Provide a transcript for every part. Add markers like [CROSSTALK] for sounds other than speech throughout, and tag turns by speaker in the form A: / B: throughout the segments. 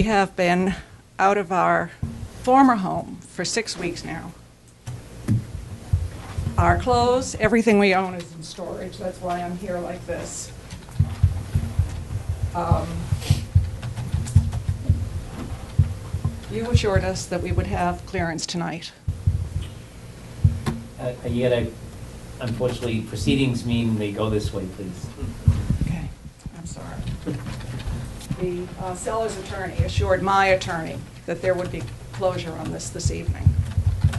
A: We have been out of our former home for six weeks now. Our clothes, everything we own is in storage, that's why I'm here like this. Um, You assured us that we would have clearance tonight.
B: Uh, Yet, I- unfortunately, proceedings mean they go this way, please.
A: Okay, I'm sorry. The uh, seller's attorney assured my attorney that there would be closure on this this evening. Um,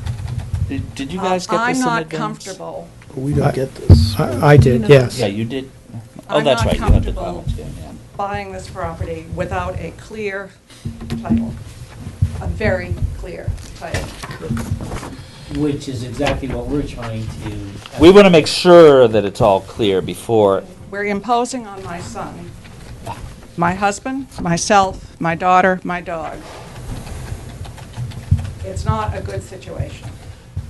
C: Did did you guys get this
A: Uh,
C: in advance?
A: I'm not comfortable
D: We
E: I-
D: don't get this.
E: I I did, yes.
C: Yeah, you did. Oh,
A: I'm
C: that's
A: not
C: right, you have the
A: comfortable.
C: comments, yeah, yeah.
A: buying this property without a clear title, a very clear title.
B: Which is exactly what we're trying to.
C: We want to make sure that it's all clear before,
A: We're imposing on my son, my husband, myself, my daughter, my dog. It's not a good situation.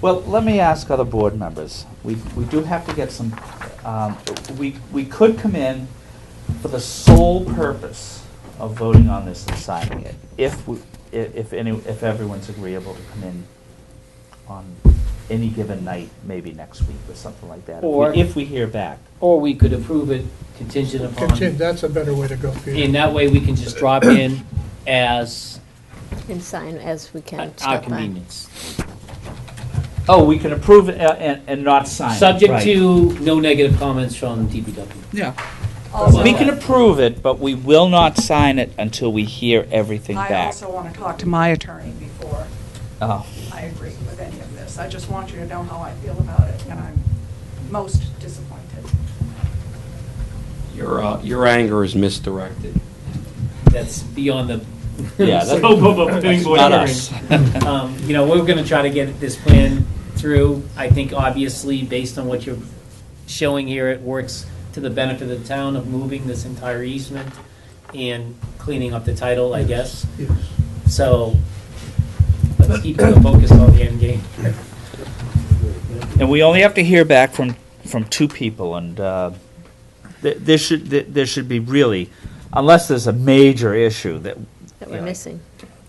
C: well, let me ask other board members. We we do have to get some, um, we we could come in for the sole purpose of voting on this and signing it, if, we- i- if any, if everyone's agreeable to come in on any given night, maybe next week or something like that, if we-
B: Or-
C: if we hear back.
B: Or we could approve it contingent
E: Contin-
B: upon,
E: That's a better way to go,
B: and
E: Peter.
B: that way we can just drop in as
F: And sign as we can.
B: at our
F: stop by.
B: convenience.
C: Oh, we can approve it, uh, and and not sign it.
B: Subject
C: right.
B: to no negative comments from DPW.
C: Yeah.
A: Also,
C: We can approve it, but we will not sign it until we hear everything
A: I
C: back.
A: also want to talk to my attorney before
C: Oh,
A: I agree with any of this. I just want you to know how I feel about it, and I'm most disappointed.
G: Your, uh, your anger is misdirected.
B: That's beyond the.
C: Yeah, that's-
B: scope of a planning board
C: not
B: hearing.
C: us. [LAUGHS]
B: Um, You know, we're gonna try to get this plan through. I think obviously, based on what you're showing here, it works to the benefit of the town of moving this entire easement and cleaning up the title, I guess.
E: Yes.
B: So let's keep the focus on the end game.
C: And we only have to hear back from, from two people, and uh, th- there should, th- there should be really, unless there's a major issue that,
F: That we're
C: Yeah.
F: missing.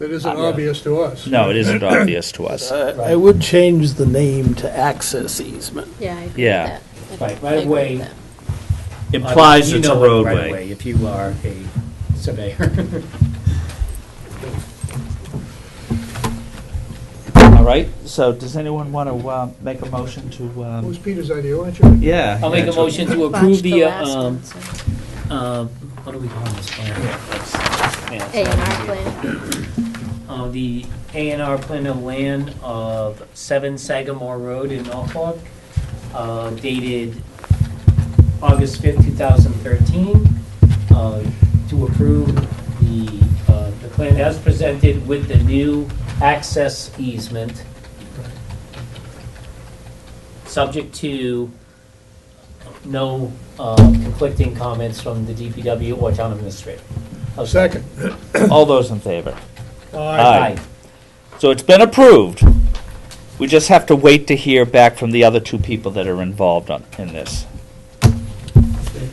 E: That isn't obvious to us.
C: no, it isn't obvious to us.
D: I Uh, would change the name to access easement.
F: Yeah, I agree with
C: Yeah.
F: that. I
B: Right,
F: agree
B: right
F: with
B: away.
F: that.
C: Implies
B: You
C: it's
B: know
C: a
B: what right of
C: roadway.
B: way If you are a surveyor. [LAUGHS]
C: All right, so does anyone want to uh, make a motion to,
E: It was
C: um,
E: Peter's idea, wasn't it?
C: yeah.
B: I'll make
C: yeah,
B: a
C: to-
B: motion to
F: Botched
B: approve the,
F: last
B: um,
F: one, so-
B: um, what do we call this plan?
F: A and R plan.
B: Uh, the A and R plan of land of Seven Sagamore Road in Norfolk, uh, dated August fifth, two thousand thirteen, uh, to approve the, uh, the plan as presented with the new access easement, subject to no, uh, conflicting comments from the DPW or town administrator. Okay.
E: Second.
C: All those in favor?
E: Aye.
C: Aye. So it's been approved. We just have to wait to hear back from the other two people that are involved on, in this.
F: And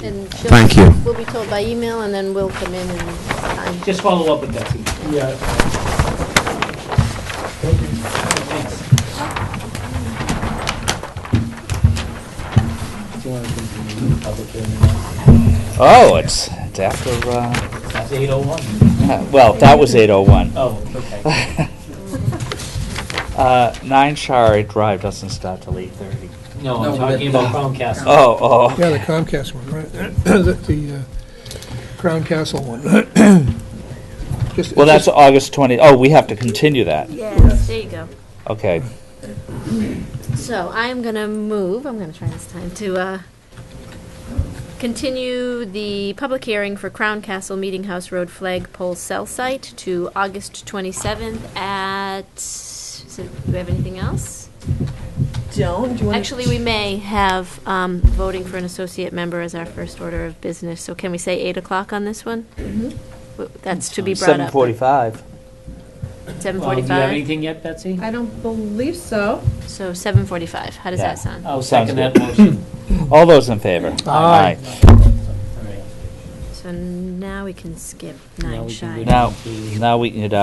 F: she'll-
G: Thank you.
F: We'll be told by email and then we'll come in and sign.
B: Just follow up with Betsy.
E: Yeah.
C: Oh, it's, it's after, uh, [LAUGHS]
B: That's 801.
C: well, that was eight oh one.
B: Oh, okay.
C: Uh, nine Shire Drive doesn't start till eight thirty.
B: No, I'm talking about Chromecast.
C: Oh, oh.
E: Yeah, the Comcast one, right? [CLEARS THROAT] The- The uh, Crown Castle one. [CLEARS THROAT] Just-
C: Well, that's August twenty, oh, we have to continue that.
F: Yes, there you go.
C: Okay.
F: So I'm going to move, I'm going to try this time, to uh, continue the public hearing for Crown Castle Meeting House Road Flag Pole Cell Site to August 27th at, so do we have anything else?
H: don't, do you want to?
F: Actually, we may have um, voting for an associate member as our first order of business, so can we say 8 o'clock on this one?
H: Mm-hmm.
F: W- That's to be brought
C: Seven
F: up.
C: forty-five.
B: Well, Do you have
F: 7:45?
B: anything yet, Betsy?
H: I don't believe so.
F: So 7:45, how does
C: Yeah.
F: that sound?
B: I'll
C: Sounds [LAUGHS]
B: second Oh, that
C: good.
B: motion.
C: All those in favor?
D: Aye.
B: All right.
I: So now we can skip
F: Now
I: nine
F: we can
I: shy.
F: go down
C: Now,
F: to-
C: now we can get